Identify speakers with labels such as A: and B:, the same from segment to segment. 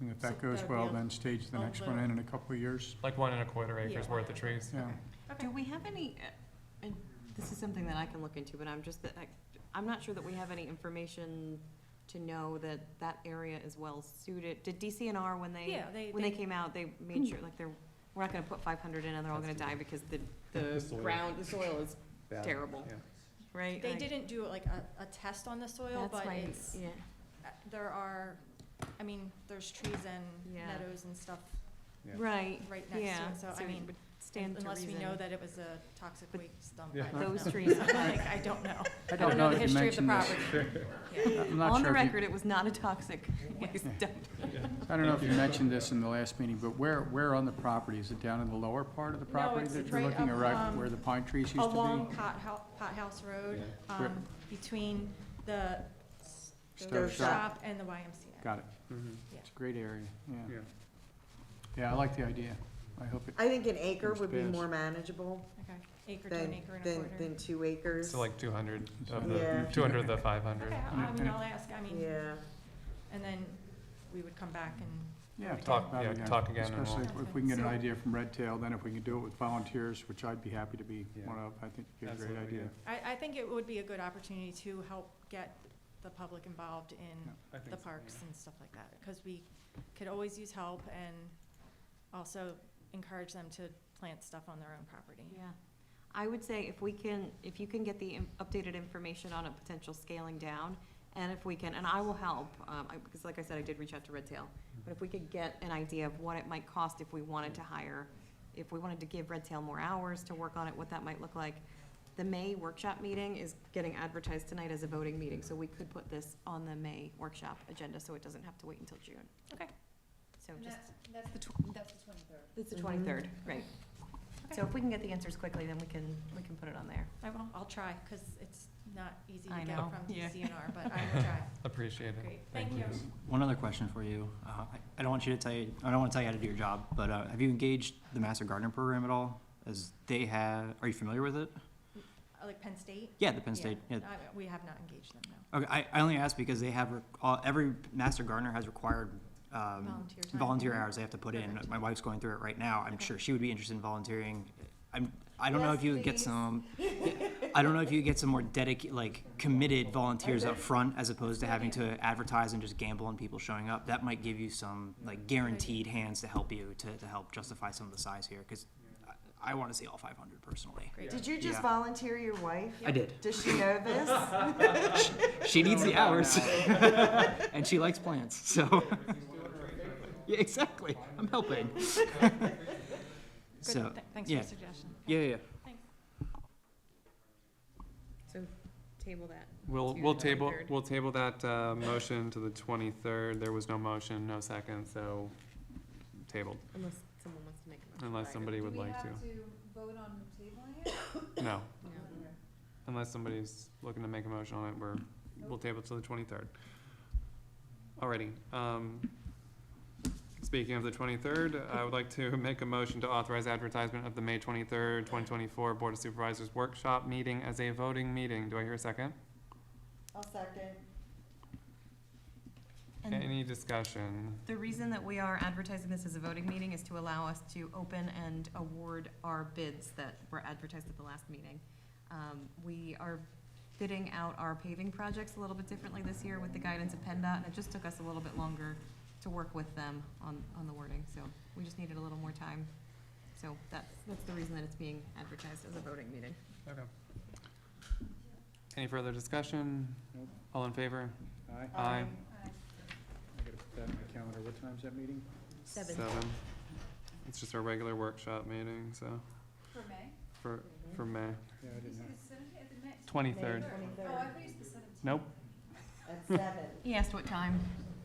A: And if that
B: So
A: goes
B: that'd be
A: well,
B: a-
A: then stage the
B: a
A: next one in in a couple of years.
C: Like one and a quarter acres
B: Yeah.
C: worth of trees.
A: Yeah.
B: Okay.
D: Do we have any, uh, and this is something that I can look into, but I'm just, that I- I'm not sure that we have any information to know that that area is well-suited. Did DCNR, when they,
B: Yeah, they,
D: when they
B: they,
D: came out, they made sure, like, they're, we're not gonna put five hundred in and they're all gonna die because the,
E: The
D: the
E: soil.
D: ground, the soil is,
E: Bad,
D: Terrible.
E: yeah.
D: right?
B: they
D: Like,
B: didn't do like a, a test on the soil,
D: that's
B: but
D: my-
B: it's,
D: Yeah,
B: uh, there are, I mean, there's trees and
D: Yeah.
B: meadows and stuff
E: Yeah.
D: right,
B: right next to
D: yeah.
B: it, so I
D: it
B: mean,
D: would Stand to
B: unless we
D: reason.
B: know that it was a toxic waste dump,
E: Yeah.
B: I don't
D: Those
B: know.
D: trees.
B: Like, I don't know.
A: I
B: don't know the
A: if you
B: history of the
A: mentioned this.
B: property. Yeah.
A: I'm not
D: On the
A: sure if you-
D: record, it was not a toxic waste dump.
A: I don't know if you mentioned this in the last meeting, but where, where on the property? Is it down in the lower part of the
B: No,
A: property
B: it's
A: that you're
B: right
A: looking
B: up,
A: at, right
B: um,
A: where the pine trees used to be?
B: Along Pot House, Pot House Road,
E: Yeah.
A: Where-
B: um, between the
A: Stove
B: stove
A: shop.
B: shop and the YMCA.
A: Got it.
E: Mhm,
A: It's a great area, yeah.
E: yeah.
A: Yeah, I like the idea. I hope it,
F: I think an acre
A: Comes
F: would be
A: past.
F: more manageable
B: Okay, acre to an
F: than,
B: acre and a
F: than,
B: quarter.
F: than two acres.
C: So like two hundred of
F: Yeah.
C: the, two hundred of the five hundred.
B: Okay, I I mean, I'll ask, I mean,
F: Yeah,
B: and then we would come back and,
A: yeah,
C: Talk-
A: talk about
C: yeah,
A: it again.
C: talk again and
A: Especially
B: we'll-
A: if- if we can get an
B: So-
A: idea from Red Tail, then if we can do it with volunteers, which I'd be happy to be
E: Yeah.
A: one of, I think it'd be a great
E: Absolutely,
A: idea.
B: I, I think it would be a good opportunity to help get the public involved in
E: I think
B: the
E: so,
B: parks and stuff like that, because we could always use help and also encourage them to plant stuff on their own property.
D: Yeah, I would say if we can, if you can get the in- updated information on a potential scaling down, and if we can, and I will help, um, I- because like I said, I did reach out to Red Tail. But if we could get an idea of what it might cost if we wanted to hire, if we wanted to give Red Tail more hours to work on it, what that might look like. The May workshop meeting is getting advertised tonight as a voting meeting, so we could put this on the May workshop agenda, so it doesn't have to wait until June.
B: Okay.
D: So just,
G: That's
D: the
G: the twenty-third.
D: it's the
F: Mhm.
D: twenty-third, right.
B: Okay.
D: So if we can get the answers quickly, then we can, we can put it on there.
B: I will, I'll try, because it's not easy to
D: I
B: get
D: know.
B: from
D: Yeah.
B: DCNR, but I will try.
C: Appreciate it.
B: Great, thank you.
H: One other question for you. Uh, I, I don't want you to tell you, I don't want to tell you how to do your job, but uh, have you engaged the Master Gardener Program at all? As they have, are you familiar with it?
B: Uh, Like Penn State?
H: Yeah, the Penn State. Yeah.
B: I- We have not engaged them, no.
H: Okay, I, I only ask because they have, re- all, every Master Gardener has required um,
B: Volunteer time.
H: volunteer hours they have to put in.
B: Perfect.
H: My wife's going through it right now. I'm
B: Okay.
H: sure she would be interested in volunteering. I'm, I don't know
F: Yes,
H: if you would get
F: please.
H: some, I don't know if you would get some more dedicated, like committed volunteers up front as opposed to having to advertise and just gamble on people showing up. That might give you some like guaranteed hands to help you to, to help justify some of the size here because I, I want to see all 500 personally.
B: Great.
F: did you just
H: Yeah.
F: volunteer your wife?
H: I did.
F: Does she know this?
H: She needs the hours. and she likes plants, so. yeah, exactly. I'm helping.
B: Good,
H: so,
B: th- Thanks for
H: yeah.
B: the suggestion.
H: yeah, yeah.
D: So table that.
C: We'll,
D: To
C: we'll
D: the
C: table,
D: 23rd.
C: we'll table that, uh, motion to the twenty-third. There was no motion, no second, so tabled,
D: Unless someone wants to make a motion.
C: unless somebody would like
G: Do
C: to.
G: we have to vote on tabling it?
C: No,
D: No.
C: unless somebody's looking to make a motion on it, we're, we'll table it till the twenty-third. Alrighty, um, speaking of the twenty-third, I would like to make a motion to authorize advertisement of the May twenty-third, twenty twenty-four Board of Supervisors Workshop Meeting as a voting meeting. Do I hear a second?
F: I'll second.
C: Any discussion?
D: The reason that we are advertising this as a voting meeting is to allow us to open and award our bids that were advertised at the last meeting. Um, We are bidding out our paving projects a little bit differently this year with the guidance of PennDOT, and it just took us a little bit longer to work with them on, on the wording, so we just needed a little more time. So that's, that's the reason that it's being advertised as a voting meeting.
C: Okay. Any further discussion?
A: Nope.
C: All in favor?
A: Aye.
C: Aye.
A: I gotta put that in my calendar. What time's that meeting?
D: Seven.
C: It's just our regular workshop meeting, so,
G: For May?
C: for, for May,
A: Yeah, I
G: Is
A: didn't
G: it
A: have.
G: the seventeenth, the next?
C: twenty-third.
G: Oh, I thought you said the seventeenth.
C: Nope,
F: At seven,
D: He asked what time.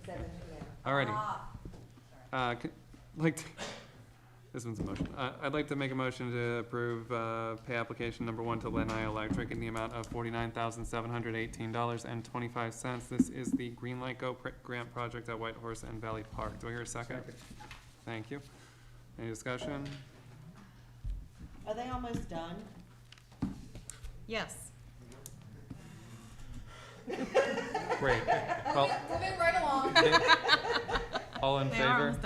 F: seven P M.
C: alrighty. Uh, c- like, to- this one's a motion. Uh, I'd like to make a motion to approve, uh, pay application number one to Lenai Electric in the amount of forty-nine thousand, seven hundred eighteen dollars and twenty-five cents. This is the Green Light Go pr- grant project at White Horse and Valley Park. Do I hear a second? Thank you. Any discussion?
F: Are they almost done?
D: Yes.
C: Great. Well,
G: Moving right along.
I: All in
C: They are
I: favor?
C: almost